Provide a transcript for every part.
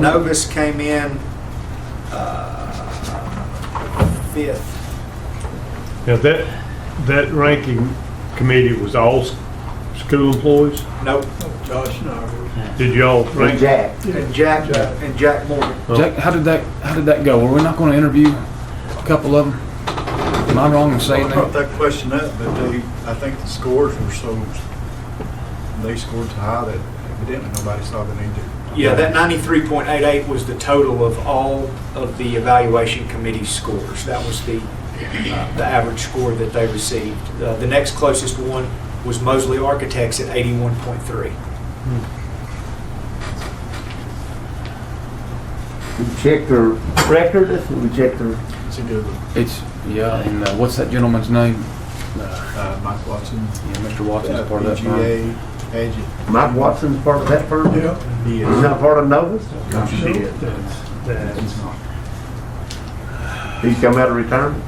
Novus came in uh, fifth. Now, that, that ranking committee was all s- school employees? Nope. Josh and I were, Did y'all rank? Jack. And Jack, and Jack Morgan. Jack, how did that, how did that go? Were we not going to interview a couple of them? Am I wrong in saying I brought that? that question up, but they, I think the scores were so, they scored so high that evidently nobody saw the need to. Yeah, that 93.88 was the total of all of the evaluation committee scores. That was the, uh, the average score that they received. Uh, The next closest one was Mosley Architects at 81.3. We checked their record, we checked their, It's a good, one. It's, yeah, and uh, what's that gentleman's name? uh, Mike Watson. Yeah, Mr. Watson's uh, part of that firm. PGA, Agent. Mike Watson's part of that firm? Yeah. He He's is. not part of Novus? No, She did. He's not. He's come out of retirement?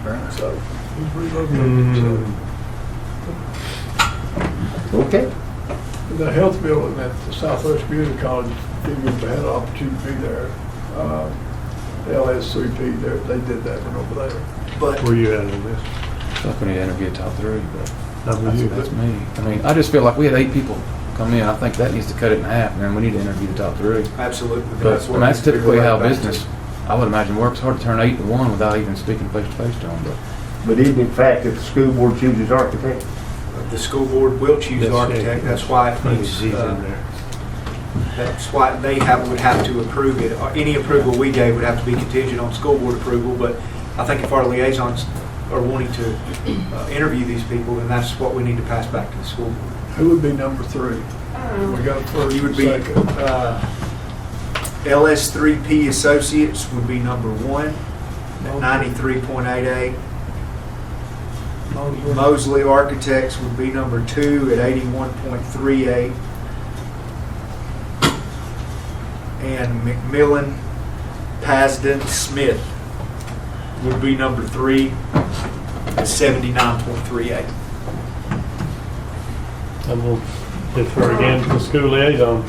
Apparently so. Mm-hmm. Mm, Okay. The health building at the Southwest Community College, people who had an opportunity to be there, uh, LSCP, there, they did that one over there. But Where you at on this? I feel like we need to interview a top three, but Not with that's, you, that's me. I mean, I just feel like we had eight people come in. I think that needs to cut it in half, man. We need to interview the top three. absolutely. But I what mean, that's we typically relate how back to. business, I would imagine, works. Hard to turn eight to one without even speaking face to face to them, but. But even in fact, if the school board chooses architect, The school board will choose That's it. architect. That's why it Maybe needs, she's in uh, there. That's why they have, would have to approve it. Or Any approval we gave would have to be contingent on school board approval, but I think if our liaisons are wanting to uh, interview these people, then that's what we need to pass back to the school. board. Who would be number three? We got first You and would be, second. uh, LS3P Associates would be number one, at 93.88. Mosley Architects would be number two at eighty-one point three eight. And McMillan, Pasden, Smith would be number three at seventy-nine point three eight. I'm gonna defer again to the school liaison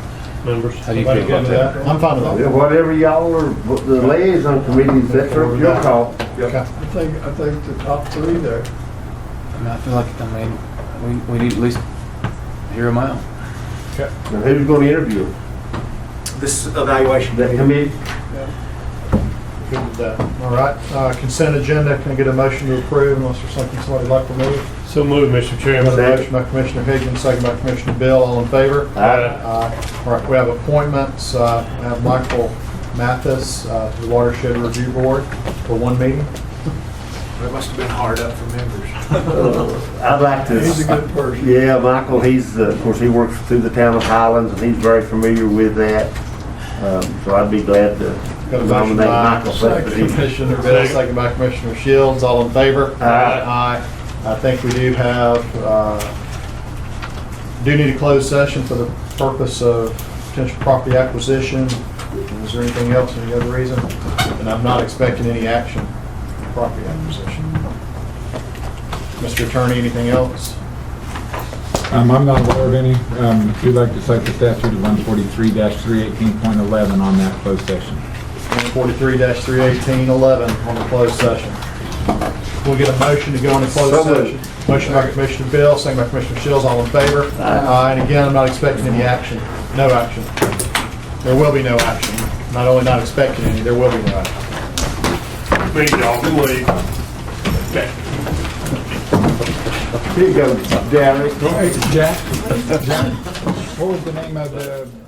members. How do you Everybody feel about good with that? I'm fine with whatever y'all are, the liaison committees, that's up to your call. I think, I think the top three there. I mean, I feel like, I mean, we, we need at least hear them out. Now, who's gonna interview them? This evaluation. That committee? Good with that. All right, uh, consent agenda, can I get a motion to approve unless there's something somebody'd like to move? So move, Mr. Got a Chairman. Motion by Commissioner Higgins, second by Commissioner Bill, all in favor? Aye. Uh, Aye. All right, we have appointments, uh, we have Michael Mathis uh, to the Watershed Review Board for one meeting. That must have been hard up for members. Uh, I'd like to. He's a good person. Yeah, Michael, he's, uh, of course, he works through the town of Highlands, and he's very familiar with that. Um, So I'd be glad to Got a motion nominate by Michael for that position. Commissioner Bill, second by Commissioner Shields, all in favor? Aye. Aye. I think we do have, uh, do need a closed session for the purpose of potential property acquisition. Is there anything else, any other reason? And I'm not expecting any action for property acquisition. Mr. Attorney, anything else? Um, I'm not aware of any. Um, if you'd like to cite the statute of one forty-three three eighteen point eleven on that closed session. 43-318-11 on the closed session. We'll get a motion to go into So closed moved. session. Motion by Commissioner Bill, second by Commissioner Shields, all in favor? Aye. And again, I'm not expecting any action, no action. There will be no action. Not only not expecting any, there will be no action. Meet y'all, please. Okay. Here you go, Derek. Hey, Jack, Jack, what was the name of the